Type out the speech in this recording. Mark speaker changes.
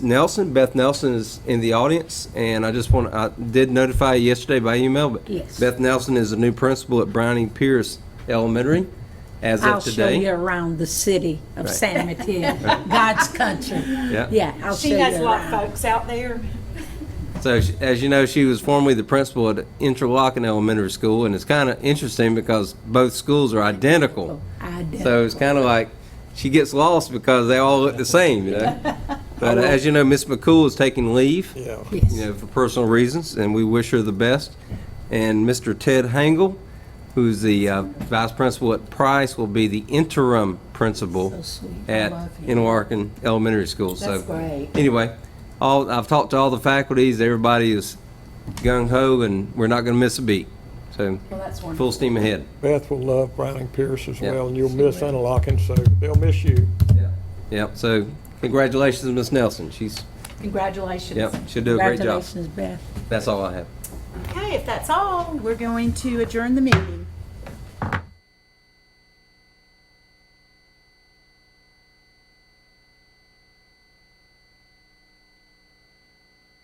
Speaker 1: Nelson, Beth Nelson is in the audience, and I just want, I did notify you yesterday by email, but
Speaker 2: Yes.
Speaker 1: Beth Nelson is the new principal at Browning Pierce Elementary as
Speaker 2: I'll
Speaker 1: of
Speaker 2: show you
Speaker 1: today.
Speaker 2: around the city of San Mateo, God's country.
Speaker 1: Yeah.
Speaker 2: Yeah, I'll show
Speaker 3: She
Speaker 2: you
Speaker 3: knows a lot of
Speaker 2: around.
Speaker 3: folks out there.
Speaker 1: So, she- as you know, she was formerly the principal at Interlochen Elementary School, and it's kind of interesting because both schools are identical.
Speaker 2: Oh,
Speaker 1: So
Speaker 2: Identical.
Speaker 1: it's kind of like, she gets lost because they all look the same, you know? But uh, as you know, Miss McCool is taking leave.
Speaker 4: Yeah.
Speaker 1: you
Speaker 2: Yes.
Speaker 1: know, for personal reasons, and we wish her the best. And Mr. Ted Hangle, who's the uh, vice principal at Price, will be the interim principal
Speaker 2: So sweet. I
Speaker 1: at
Speaker 2: love him.
Speaker 1: Interlaken Elementary School. So
Speaker 2: That's great.
Speaker 1: Anyway, all, I've talked to all the faculties, everybody is gung ho, and we're not going to miss a beat. So,
Speaker 2: Well, that's wonderful.
Speaker 1: full steam ahead.
Speaker 4: Beth will love Browning Pierce as
Speaker 1: Yeah.
Speaker 4: well, and you'll miss Interlochen, so they'll miss you.
Speaker 1: Yep, so congratulations, Ms. Nelson. She's,
Speaker 3: Congratulations.
Speaker 1: yep, she'll do a great job.
Speaker 2: Congratulations, Beth.
Speaker 1: That's all I have.
Speaker 3: Okay, if that's all, we're going to adjourn the meeting.